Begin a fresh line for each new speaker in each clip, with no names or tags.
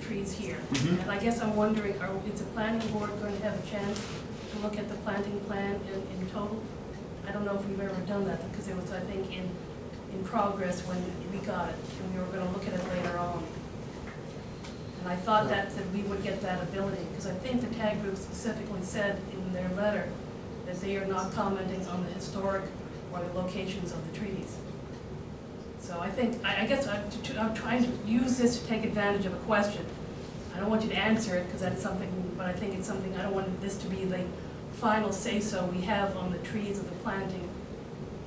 trees here.
Mhm.
And I guess I'm wondering, are, is the planning board going to have a chance to look at the planting plan in, in total? I don't know if we've ever done that, because it was, I think, in, in progress when we got it, and we were gonna look at it later on. And I thought that, that we would get that ability, because I think the tag group specifically said in their letter that they are not commenting on the historic or the locations of the trees. So I think, I, I guess I'm, t- I'm trying to use this to take advantage of a question. I don't want you to answer it, because that's something, but I think it's something, I don't want this to be the final say-so we have on the trees and the planting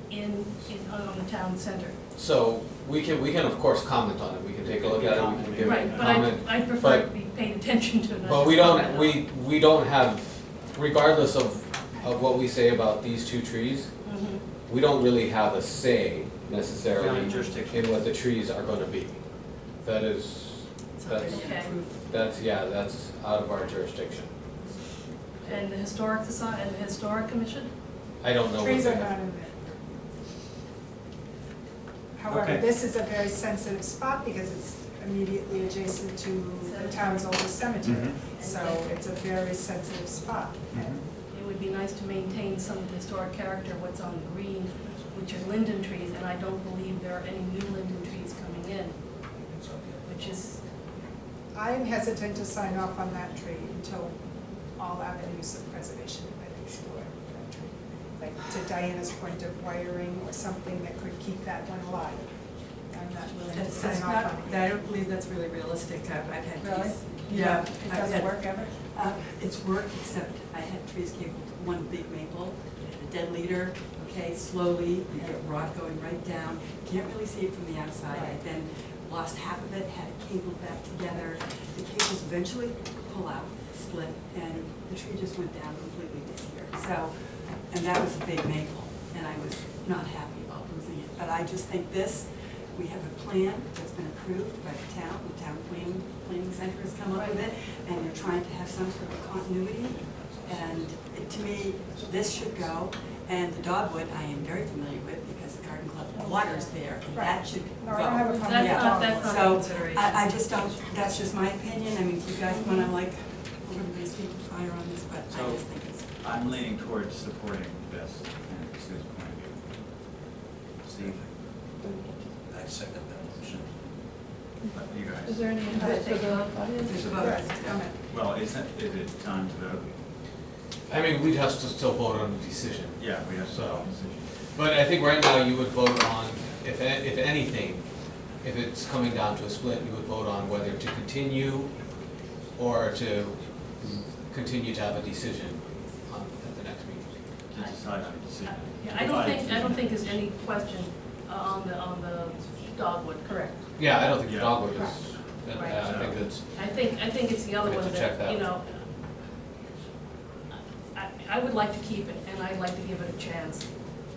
in, in, on the town center.
So we can, we can of course comment on it, we can take a look at it, we can give it a
Right,
comment.
but I, I prefer to
but-
be paid attention to. not
But we
just
don't,
comment
we, we don't have, regardless of, of what we say about these two trees,
on it. Mhm.
we don't really have a say necessarily
Valid jurisdiction.
in what the trees are gonna be. That is, that's,
Okay,
that's, yeah, that's out of our jurisdiction.
and the historic society, and the historic commission?
I don't know what
Trees are
that,
not in there. However,
Okay.
this is a very sensitive spot because it's immediately adjacent to the town's oldest cemetery.
Mhm.
So it's a very sensitive spot.
Mm-hmm.
Mm-hmm.
It would be nice to maintain some of the historic character, what's on the green, which are linden trees, and I don't believe there are any new linden trees coming in, which is,
I am hesitant to sign off on that tree until all avenues of preservation have been explored for that tree. Like to Diana's point of wiring or something that could keep that one alive. I'm not willing to
That's,
sign
that's
off
not,
on it.
I don't believe that's really realistic, I've, I've had
Really?
trees. Yeah.
It
I've
doesn't
had-
work ever?
Uh, it's work, except I had trees came with one big maple, a dead leader, okay, slowly, you get rot going right down, can't really see it from the outside. I then lost half of it, had it cabled back together, the cables eventually pull out, split, and the tree just went down completely this year. So, and that was a big maple, and I was not happy about losing it, but I just think this, we have a plan that's been approved by the town, the town planning, planning center has come up with it, and they're trying to have some sort of continuity. And it- to me, this should go, and the dogwood, I am very familiar with, because the garden club waters there, and that should go.
No, I don't have a
that's
problem with
Yeah.
not,
that.
that's not a
So,
consideration.
I, I just don't, that's just my opinion, I mean, if you guys wanna like, we're gonna be speaking fire on this, but I
So-
just think it's.
I'm leaning towards supporting this, and Sue's point of view. Steve,
I second that motion.
but you
Is
guys,
there any input for the
There's
audience?
a vote.
Right.
Yeah.
well, isn't, is it time to vote?
I mean, we'd have to still vote on the decision.
Yeah, we have
So-
some decision.
But I think right now you would vote on, if, a- if anything, if it's coming down to a split, you would vote on whether to continue or to continue to have a decision on, at the next meeting.
To decide on decision.
Yeah, I don't think, I don't think there's any question uh, on the, on the dogwood, correct?
Yeah, I don't think the
Yeah.
dogwood is, uh,
Right.
I think that's,
I think, I think it's the other
We have
one
to check
that,
that.
you know, I, I would like to keep it, and I'd like to give it a chance.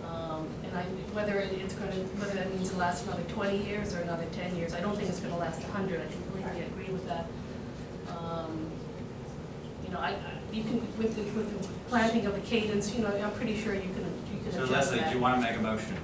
Um, And I, whether it- it's gonna, whether that means it lasts another twenty years or another ten years, I don't think it's gonna last a hundred, I completely agree with that. Um, You know, I, I- you can, with the, with the planting of the cadence, you know, I'm pretty sure you can, you can
So
adjust
Leslie, do
that.
you want to make a motion?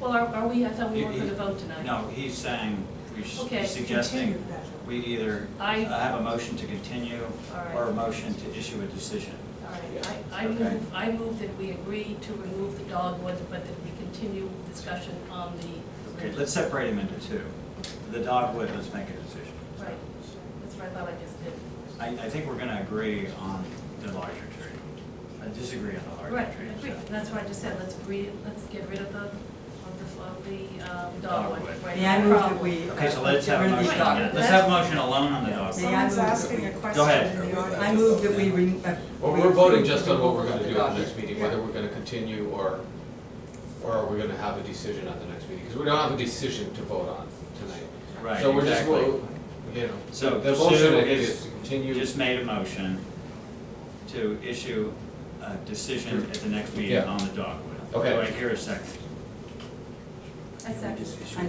Well, are, are we, I thought we
You-
weren't gonna
you-
vote tonight.
No, he's saying, we s-
Okay,
Continue
suggesting
that.
we either
I-
have a motion to continue
All
or
right.
a motion to issue a decision.
All right, I, I
Okay.
move, I move that we agree to remove the dogwood, but that we continue discussion on the.
Okay, let's separate them into two. The dogwood, let's make a decision.
Right, that's what I thought I just did.
I, I think we're going to agree on the larger tree. I disagree on the
Right,
larger tree.
I agree.
so-
that's what I just said, let's agree, let's get rid of the, of the, of the um, dogwood.
Dogwood.
Right,
May I move that
problem.
we.
Okay, so
uh,
let's
get
have a
rid of these
motion.
dog-
yeah,
documents.
Let's have a motion alone on the dogwood.
May I
Someone's
move that
asking
we-
a
Go
question
ahead.
in the audience.
I move that we. re- uh,
well,
we
we're voting
approve
just on what we're gonna do
the
at the
document.
next meeting, whether we're gonna continue or, or are we gonna have a decision at the next meeting? Because we don't have a decision to vote on tonight.
Right,
So we're just,
exactly.
wo- you know,
So
the motion
Sue
I think
is-
is to continue.
You just made a motion to issue a decision at the next meeting
Yeah.
on the dogwood.
Okay.
Do I hear a second?
I second.
And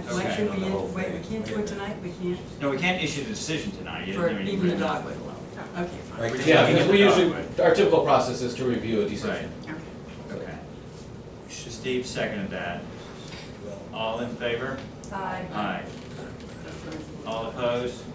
why
Okay,
should
on
we,
the whole
wait, we
thing.
can't do it tonight, we can't,
No, we can't issue the decision tonight. You- I
for
mean,
even the
we're not-
dogwood alone, okay,
Right.
fine.
We're just
Yeah,
looking at
because we
the
usually,
dogwood.
our typical process is to review a
Right,
decision.
Okay.
okay. Steve seconded that. All in favor?
Aye.
Aye. All opposed?